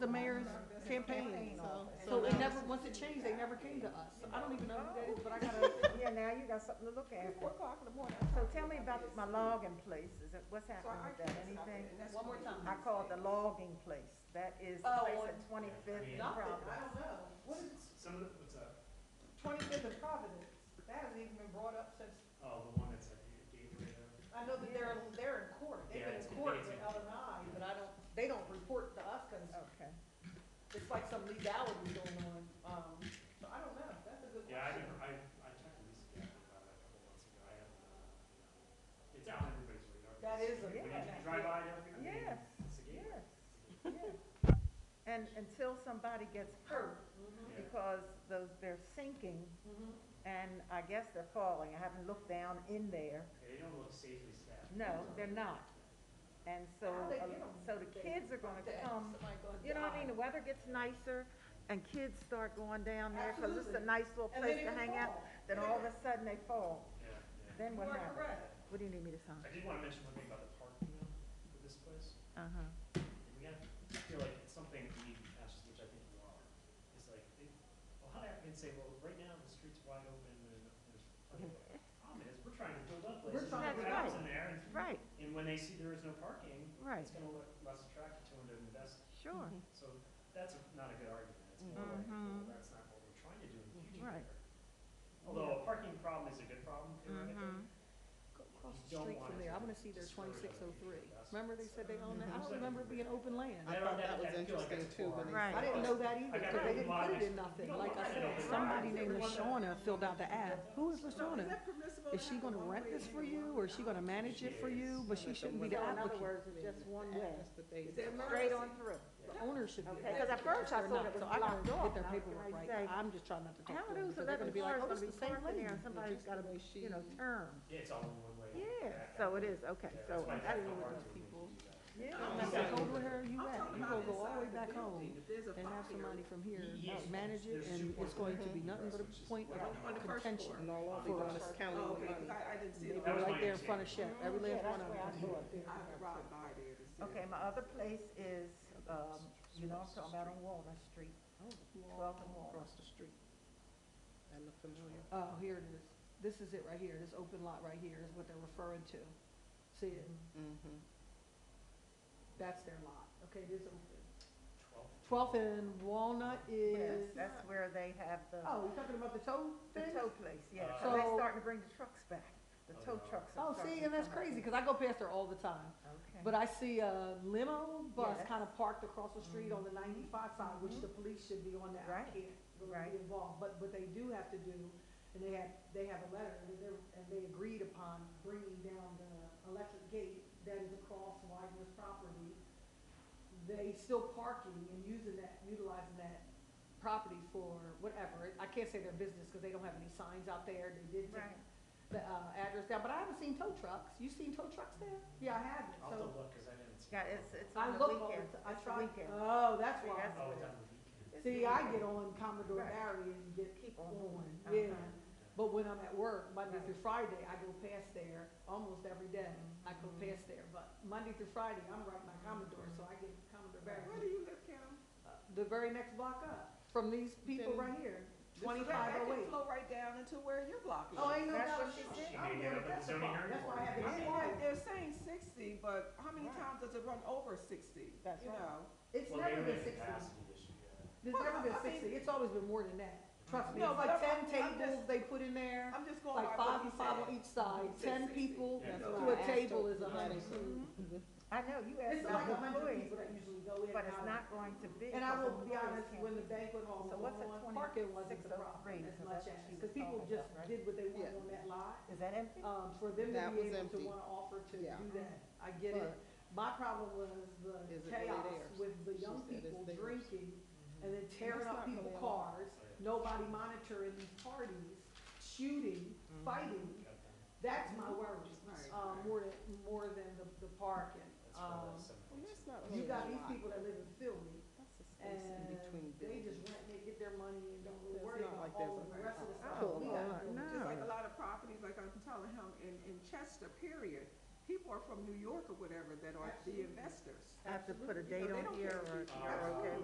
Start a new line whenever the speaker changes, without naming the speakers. to change, they never came to us, I don't even know who that is, but I gotta,
Yeah, now you got something to look at.
four o'clock in the morning.
So tell me about my logging place, is it, what's
So
happening
I
with that, anything?
One more time.
I call it the logging place, that is the
Oh,
place
on-
at Twenty-Fifth and
Nothing, I
Providence.
don't know, what is,
Some of the, what's that?
twenty-fifth of Providence, that hasn't even been brought up since,
Oh, the one that's at the gateway there.
I know that they're, they're in court, they've
Yeah,
been
it's
in
been
court
days.
with Ellen and I, but I don't, they don't report to us, cause
Okay,
it's like some legality going on, um, so I don't know, that's a good question.
Yeah, I never, I, I checked with Lisa Gaffney about that a couple months ago, I haven't, uh, you know, it's on everybody's radar.
That is a-
When you
Yeah.
drive by, it, I mean,
Yes,
it's a gateway.
yes, yes. And until somebody gets hurt,
Mm-hmm,
Yeah.
because those, they're sinking,
mm-hmm.
and I guess they're falling, I haven't looked down in there,
They don't look safely staffed.
no, they're not. And so,
How they
uh,
get 'em?
so the kids are gonna
That
come
somebody gonna
You know what I mean,
die.
the weather gets nicer, and kids start going down there, because it's a
Absolutely.
nice little
And
place
then
to
it
hang
would
out,
fall.
then
And it
all of
would-
a sudden they fall,
Yeah, yeah.
then what
You are
happens?
correct.
What do you need me to sign?
I did wanna mention one thing about the parking though, for this place.
Uh-huh,
We have, I feel like it's something we need to pass, which I think you are, is like, it- a lot of applicants say, well, right now the street's wide open and there's plenty of, problem is, we're trying to build up
We're
places,
trying
to
and put
build
houses in there, and
right,
And when they see there is no parking,
right,
it's gonna look less attractive to them to invest,
sure,
so that's a- not a good argument, it's more like, well,
Mhm.
that's not what we're trying to do in the future.
Mm-hmm. Right.
there. Although a parking problem is a good problem, theoretically.
Mhm.
Go across
You
the
don't
street
want
from
it
there,
to
I wanna see their
destroy other
twenty-six oh three.
people's
Remember they said they own that, I don't remember it being open land.
I
Yeah,
thought
that-
that was
I feel like
interesting
that's
too,
far.
when they.
right,
I didn't know that either,
I got
cause they
it.
didn't put it in nothing, like I said, somebody named LaShawna filled out the app, who is LaShawna? Is she gonna rent this for you, or is she gonna manage it for you, but she shouldn't be the
So in other
applicant?
words, it's just one way,
That's the thing.
straight on through.
The owner should be.
Okay, 'cause at first I
They're
thought it
not,
was
so I gotta
blocked off,
Get their
and I was
paperwork
gonna
right,
say,
I'm just trying not to talk
How
to
are
them,
those
because they're gonna
eleven
be like,
cars
oh,
gonna
it's
be
the same
parked in
lady.
there, and somebody's gotta, you know, turn?
Yeah, it's all one way.
Yeah,
back
so
out.
it is, okay,
Yeah,
so,
that's why
I didn't
that's how
know what
hard
those
it is.
people. yeah.
I'm
Yeah.
not
Exactly.
gonna go to her, you
I'm
at,
talking
you
about
gonna go all the way
inside
back
the
home,
building. There's a
and have
fire.
somebody from here
Yes,
manage it,
there's two
and it's
points.
going to be nothing but a point
On the- on
of
the first
contention.
floor.
all
over
For
the
us
first-
counting
Oh,
the
okay,
money.
'cause I- I didn't see it.
They were
That
like-
was my
Right there in front of Chef, every last
Yeah, that's
one of
where I
them.
grew up, there.
I ride by there to see.
Okay, my other place is, um, you know, I'm talking about on Walnut Street,
Oh.
twelve and Walnut.
Across the street. That look familiar.
Uh,
Oh, here it is. This is it right here. This open lot right here is what they're referring to. See it?
Mm-hmm.
That's their lot. Okay, it is open.
Twelve.
Twelfth and Walnut
Yes,
is,
that's where they have the,
oh, you're talking about the tow
the
thing?
tow place, yeah,
Uh,
so they're
So-
starting to bring the trucks back, the
Oh,
tow
no.
trucks are
Oh,
starting
see,
to
and that's
come back.
crazy, cause I go past there all the time.
Okay.
But I see a limo bus
Yes.
kinda parked across the street on the ninety-five side, which the police should be on that. I
Right.
can't really
Right.
be involved, but what they do have to do, and they have, they have a letter, and they're, and they agreed upon bringing down the electric gate that is across Wagner's property. They still parking and using that, utilizing that property for whatever, I can't say their business, cause they don't have any signs out there, they did take
Right,
the, uh, address down, but I haven't seen tow trucks, you seen tow trucks there? Yeah, I haven't,
I'll have
so.
to look, cause I didn't. see
yeah,
it.
it's, it's
I
on the
look all
weekend,
the ti- I
it's the
try,
weekend.
oh, that's
See,
why.
that's
Oh,
what it
down the weekend.
is.
See, I get on Commodore
Right.
Barry and get
Keep on
on,
going.
yeah.
Uh-huh.
But when I'm at work, Monday
Right.
through Friday, I go past there almost every day. I go
Mm-hmm.
past there, but Monday through Friday, I'm right by Commodore, so I get Commodore
Where do
Barry.
you live, Kim?
Uh, The very next block up, from these people
Then-
right here,
This-
twenty-five
That
oh
can
eight.
flow right down into where your block is.
Oh, ain't no
That's
doubt
what she
she
said.
said.
She
I'm
made
going
it
to
up in zoning
testify. That's why I
I mean, like,
haven't been.
they're saying sixty, but how many
Right.
times does it run over sixty?
That's
You
right.
know?
It's
Well,
never
maybe
been
it's a
sixty.
capacity issue, yeah.
There's
Well,
never been
I mean-
sixty, it's always been more than that. Trust me,
No,
it's
but
like
I'm-
ten
I'm just-
tables they put in there,
I'm just going by
like
what
five
he
and five oh on
said.
each side,
He said
ten
60.
people
Yeah.
That's
to
why I
a
asked
table
her.
is a hundred.
I know, you asked
It's like
about
a hundred
employees,
people that usually go in
but
and
it's
out.
not going to be.
And I
because
will
the
be honest,
employees
when
can't
the banquet hall
So
was
what's a
on,
20
parking wasn't the problem
603?
as
So
much
that's
as,
what she was
cause people
talking
just
about, right?
did what they wanted
Yeah.
on that lot.
Is that empty?
Um, for them to
That
be
was
able to
empty.
wanna offer to
Yeah.
do that, I get it.
But-
My problem was the
Is it really
chaos
theirs?
with the
She
young
said it's
people
theirs.
drinking and then tearing up
That's not
people's
really allowed.
cars, nobody monitoring these parties, shooting, fighting.
Got them.
That's my worry,
Mm-hmm. Right.
um, more than, more than the, the parking.
That's
Um,
probably seven
Well, that's
points.
not
you
really
got
a
these
lot.
people that live in Philly
That's the space in
and
between
they
buildings.
just rent, they get their money and don't really
It's
worry
not
about
like there's
all
a
the
very
rest of the
high
stuff.
Oh,
we
oh,
got going.
no.
Just like a lot of properties, like I'm telling him, in, in Chester, period, people are from New York or whatever that are the
Absolutely.
investors.
I have to put a
Absolutely.
date
So they
on
don't
here
care.
or,
Uh,
you're okay